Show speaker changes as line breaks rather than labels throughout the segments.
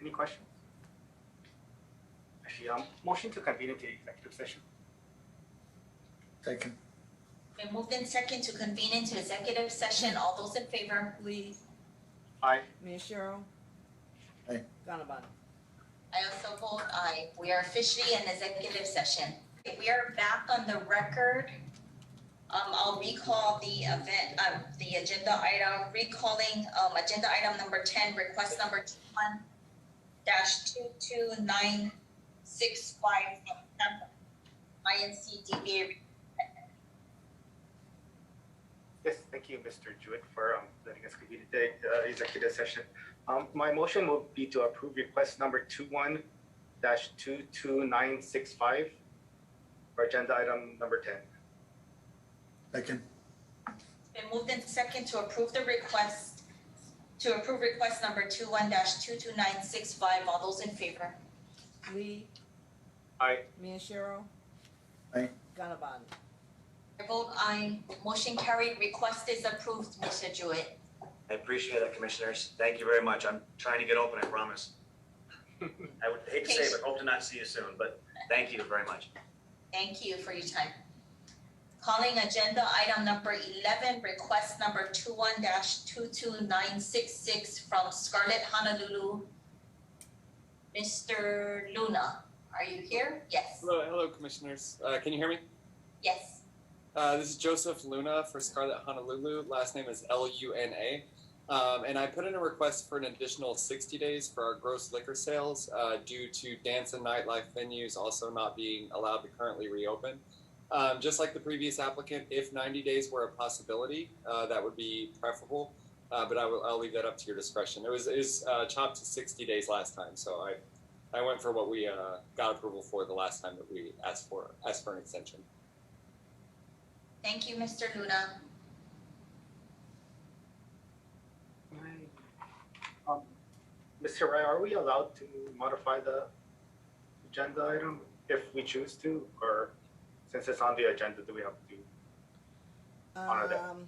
Any questions? Actually, um, motion to convene into executive session.
Second.
Been moved in second to convene into executive session. All those in favor, please.
Aye.
Miyashiro.
Aye.
Gannabon.
I also vote aye. We are officially in executive session. We are back on the record. Um, I'll recall the event, um, the agenda item, recalling, um, agenda item number ten, request number one dash two two nine six five from Tampa, INC DBA.
Yes, thank you, Mr. Jewett, for um, letting us convene the uh, executive session. Um, My motion will be to approve request number 21-22965 for agenda item number 10.
Second.
Been moved in second to approve the request, to approve request number two one dash two two nine six five. All those in favor?
Lee.
Aye.
Miyashiro.
Aye.
Gannabon.
I vote aye. Motion carried. Request is approved, Mr. Jewett.
I appreciate it, commissioners. Thank you very much. I'm trying to get open, I promise. I would hate to say, but hope to not see you soon, but thank you very much.
Thank you for your time. Calling agenda item number eleven, request number two one dash two two nine six six from Scarlet Honolulu. Mister Luna, are you here? Yes,
Hello, hello, commissioners. Uh, can you hear me?
yes.
Uh, this is Joseph Luna for Scarlet Honolulu. Last name is L U N A. Um, and I put in a request for an additional 60 days for our gross liquor sales uh, due to dance and nightlife venues also not being allowed to currently reopen. Um, just like the previous applicant, if 90 days were a possibility, uh, that would be preferable. Uh, but I will, I'll leave that up to your discretion. It was is uh, chopped to 60 days last time, so I, I went for what we uh, got approval for the last time that we asked for asked for an extension.
Thank you, Mister Luna.
Um, Mr. Rai, are we allowed to modify the agenda item if we choose to? Or since it's on the agenda, do we have to? Honor that.
Um,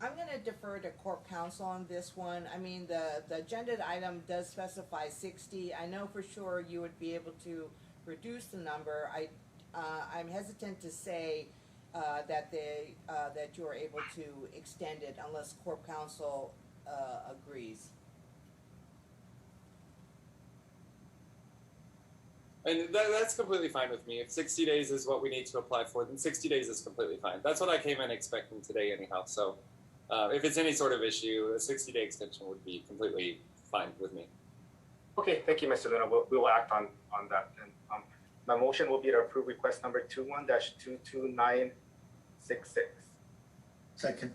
I'm gonna defer to corp counsel on this one. I mean, the, the agenda item does specify sixty. I know for sure you would be able to reduce the number. I, uh, I'm hesitant to say, uh, that they, uh, that you are able to extend it unless corp counsel, uh, agrees.
And that, that's completely fine with me. If 60 days is what we need to apply for, then 60 days is completely fine. That's what I came in expecting today, anyhow. So uh, if it's any sort of issue, a 60 day extension would be completely fine with me.
Okay, thank you, Mr. Luna. We'll, we will act on, on that. And, um, my motion will be to approve request number two one dash two two nine six six.
Second.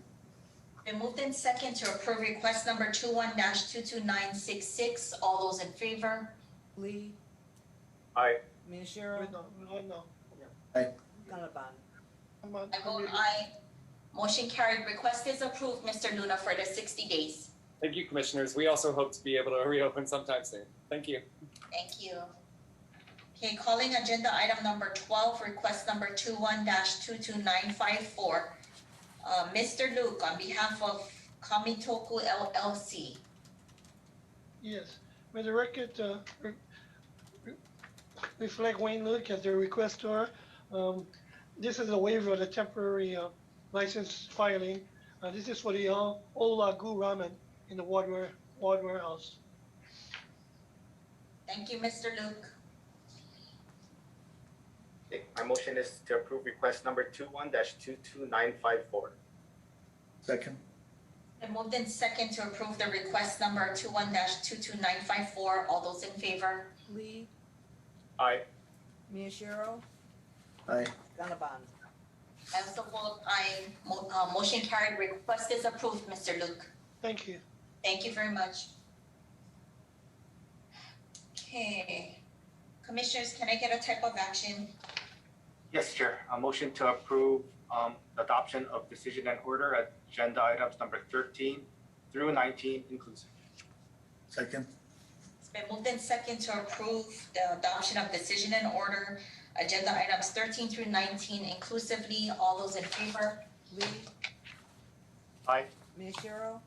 Been moved in second to approve request number two one dash two two nine six six. All those in favor?
Lee,
Aye.
Miyashiro,
uh,
Aye.
Gannabon.
I vote
Mm-hmm.
aye. Motion carried. Request is approved, Mr. Luna, for the sixty days.
Thank you, commissioners. We also hope to be able to reopen sometime soon. Thank you.
Thank you. Okay, calling agenda item number twelve, request number two one two two nine five four. Uh, Mr. Luke, on behalf of Kamitoku LLC.
Yes, may the record uh, re- re- reflect Wayne Luke as the requestor. Um, This is a waiver of the temporary uh, license filing. Uh, This is for the uh, Old Lagu Ramen in the Wardware, Wardware House.
Thank you, Mr. Luke.
Okay, my motion is to approve request number two one dash two two nine five four.
Second.
Then moved in second to approve the request number two one two two nine five four. All those in favor?
Lee,
Aye.
Miyashiro,
Aye.
Gannabon.
I also vote aye. Mo- uh, motion carried. Request is approved, Mr. Luke.
Thank you.
Thank you very much. Okay, commissioners, can I get a type of action?
Yes, Chair. A motion to approve um, adoption of decision and order agenda items number thirteen through nineteen inclusive.
Second.
It's been moved in second to approve the adoption of decision and order, agenda items thirteen through nineteen inclusively. All those in favor?
Lee.
Aye.
Miyashiro,